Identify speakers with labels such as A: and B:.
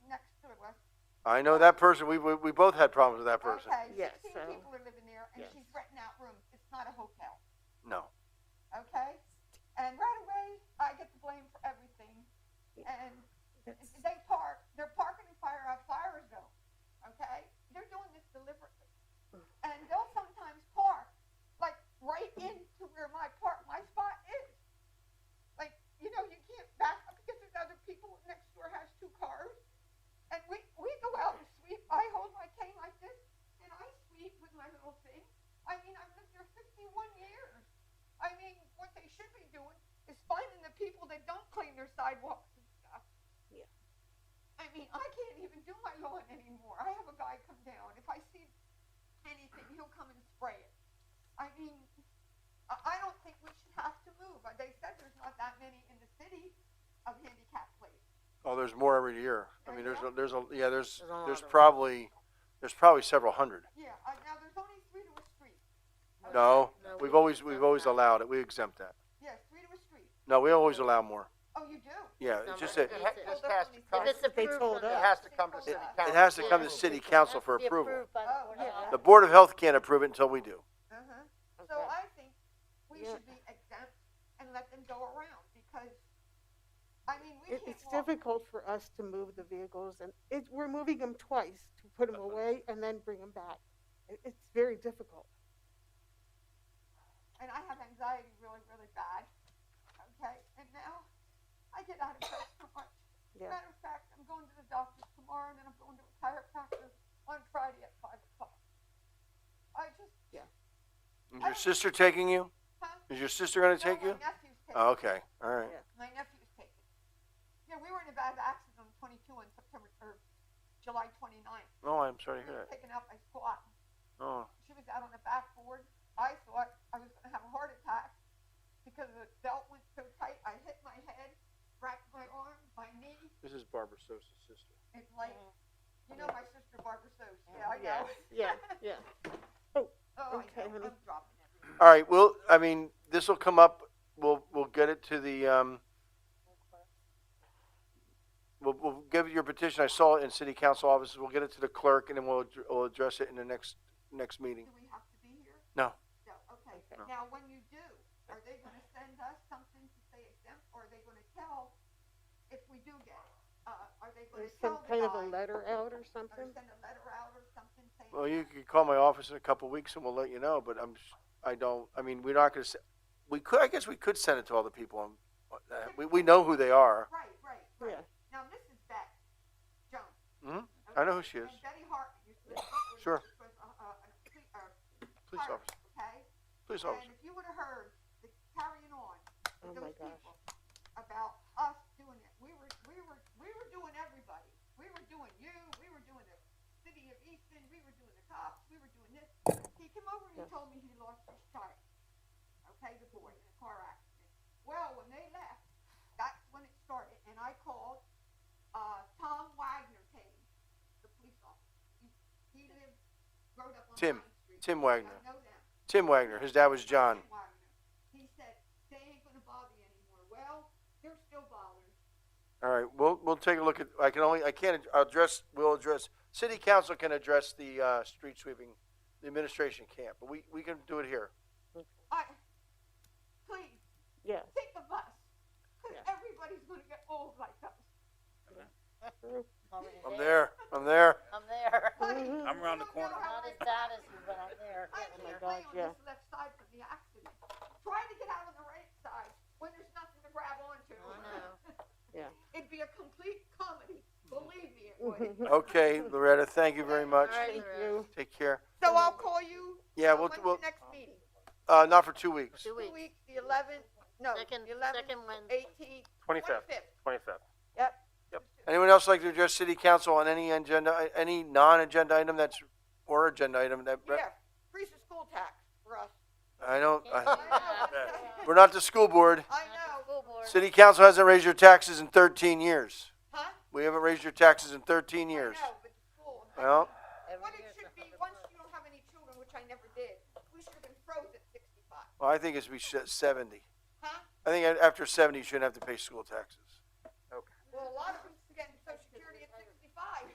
A: I know that person, we, we, we both had problems with that person.
B: Okay,
C: Yes,
B: sixteen
C: so-
B: people are living there, and
C: Yes.
B: she's renting out rooms, it's not a hotel,
A: No.
B: okay? And right away, I get the blame for everything, and they park, they're parking in fire, a fire zone, okay? They're doing this deliberately, and they'll sometimes park, like, right into where my park, my spot is. Like, you know, you can't back up because there's other people, next door has two cars, and we, we go out and sweep, I hold my cane like this, and I sweep with my little thing. I mean, I've lived there 51 years. I mean, what they should be doing is finding the people that don't clean their sidewalks and stuff.
C: Yeah.
B: I mean, I can't even do my lawn anymore. I have a guy come down. If I see anything, he'll come and spray it. I mean, I, I don't think we should have to move. Uh, They said there's not that many in the city of handicap places.
A: Oh, there's more every year. I mean, there's, a- there's a, yeah, there's,
C: There's a lot
A: there's
C: of them.
A: probably, there's probably several hundred.
B: Yeah, uh, now there's only three to a street.
A: No,
C: No,
A: we've
C: Oh, we-
A: always, we've always allowed it. We exempt that.
B: Yes, three to a street.
A: No, we always allow more.
B: Oh, you do?
A: Yeah,
C: Some
A: it's just
C: are-
A: that,
D: It ha-
C: If
D: just has to
B: it's
D: come,
C: If it's
D: it
C: approved
B: approved
C: by
B: or
C: the-
D: has to come to city
B: It
D: council.
A: it has to come
D: for
A: to
D: approval.
A: city council
C: Has
A: for
C: to be
A: approval.
C: approved by the
B: Oh,
C: Board of
B: yeah.
C: Health.
A: The Board of Health can't approve it until we do.
B: Uh-huh. So
C: Okay.
B: I think we
C: Yeah.
B: should be exempt and let them go around because, I mean, we
E: It,
B: can't
E: it's
B: walk.
E: difficult for us to move the vehicles and it, we're moving them twice to put them away and then bring them back. It, it's very difficult.
B: And I have anxiety really, really bad. Okay, and now I get out of bed so much.
E: Yeah.
B: Matter of fact, I'm going to the doctor tomorrow and then I'm going to a chiropractor on Friday at five o'clock. I just,
A: Is your sister taking you?
B: huh?
A: Is your sister
C: Oh,
A: gonna
B: No,
A: take you?
B: My nephew's taking
A: Oh, okay, all right.
B: My nephew's taking. Yeah, we were in a bad accident on twenty-two on September, or July twenty-ninth.
A: Oh, I'm sorry
B: We
A: to hear
B: were
A: that.
B: taken out by squat.
A: Oh,
B: she was out on the backboard. I thought I was going to have a heart attack because the belt went so tight. I hit my head, racked my arm, my knee.
A: this is Barbara Sosa's sister.
B: It's like, you
E: Mm-hmm.
B: know, my sister Barbara Soaps. Yeah, I
C: Yeah,
B: know.
C: yeah, yeah.
B: Oh, I
E: Okay,
B: know.
E: honey.
B: I'm dropping everything.
A: All right, well, I mean, this will come up, we'll, we'll get it to the, um, we'll, we'll give your petition, I saw it in city council offices, we'll get it to the clerk and then we'll, ad- we'll address it in the next, next meeting.
B: Do we have to be here?
A: No.
B: No. Okay.
A: No.
B: Now, when you do, are they going to send us something to say exempt, or are they going to tell if we do get it? Uh, are they going
E: There's
B: to
E: some
B: tell
E: kind
B: the
E: of a
B: guy,
E: letter out
B: or
E: or something.
B: send a letter out or something saying?
A: Well, you could call my office in a couple of weeks and we'll let you know, but I'm, s- I don't, I mean, we're not gonna, se- we could, I guess we could send it to all the people, on- uh, we, we know who they are.
B: Right, right, right.
E: Yeah,
B: Now, Mrs. Beck Jones.
A: Mhm. I know who she
B: And
A: is.
B: Betty Hart used to.
A: Sure.
B: was a- a- a cle- a
A: Police
B: clerk,
A: officer,
B: Okay?
A: police officer.
B: And if you would have heard the carrying on
E: Oh
B: with
E: my
B: those
E: gosh.
B: people about us doing it, we were, we were, we were doing everybody. We were doing you, we were doing the city of Easton, we were doing the cops, we were doing this. He came over and he
E: Yes.
B: told me he lost his child. Okay, the boy in a car accident. Well, when they left, that's when it started, and I called, uh, Tom Wagner came, the police officer. He- He lived, growed up on
A: Tim.
B: Pine Street.
A: Tim
B: I
A: Wagner,
B: know them.
A: Tim Wagner, his dad was John.
B: Tim Wagner. He said, they ain't gonna bother you anymore. Well, they're still bothering.
A: All right, we'll, we'll take a look at, I can only, I can't ad- address, we'll address, city council can address the, uh, street sweeping, the administration can't, but we, we can do it here.
B: I, please,
E: yeah,
B: take the bus, cause
C: Yeah.
B: everybody's gonna get old like us.
E: true.
A: I'm there, I'm there.
D: I'm there.
B: Honey,
E: Mhm.
F: I'm around the
B: you don't
F: corner.
B: know how
D: Not as
B: I-
D: bad as you, but I'm there. Oh
B: I
D: Getting
E: my
B: can't
D: there.
B: lay
E: God,
B: on
E: yeah.
B: this left side from the accident. Try to get out on the right side when there's nothing to grab onto.
D: I know.
E: Yeah.
B: It'd be a complete comedy, believe me it would.
A: Okay, Loretta, thank you very much.
D: All right,
E: Thank
D: Loretta.
E: you.
A: Take care.
B: So I'll call you, uh,
A: Yeah, we'll,
B: when's
A: we'll,
B: the next meeting?
A: uh, not for two weeks.
D: Two
B: Two
D: weeks.
B: weeks, the eleventh, no,
D: Second,
B: the eleventh,
D: second Wednesday.
B: eighteenth,
G: Twenty-fifth,
B: twenty-fifth.
G: twenty-fifth.
A: Anyone else like to address city council on any agenda, any non-agenda item that's, or agenda item that,
B: Yeah, freeze the school tax for us.
A: I don't, I,
B: I
A: we're not the school board.
B: I
D: Not the
B: know,
D: School board.
A: City council hasn't raised your taxes in thirteen years.
B: huh?
A: We haven't raised your taxes in thirteen
B: I
A: years.
B: know, but the school.
A: Well,
D: Every
B: What it
D: year
B: should be,
D: something.
B: once you don't have any children, which I never did, we should have been froze at sixty-five,
A: Well, I think it's be sh- seventy.
B: huh?
A: I think a- after seventy, you shouldn't have to pay school taxes.
B: Well, a lot of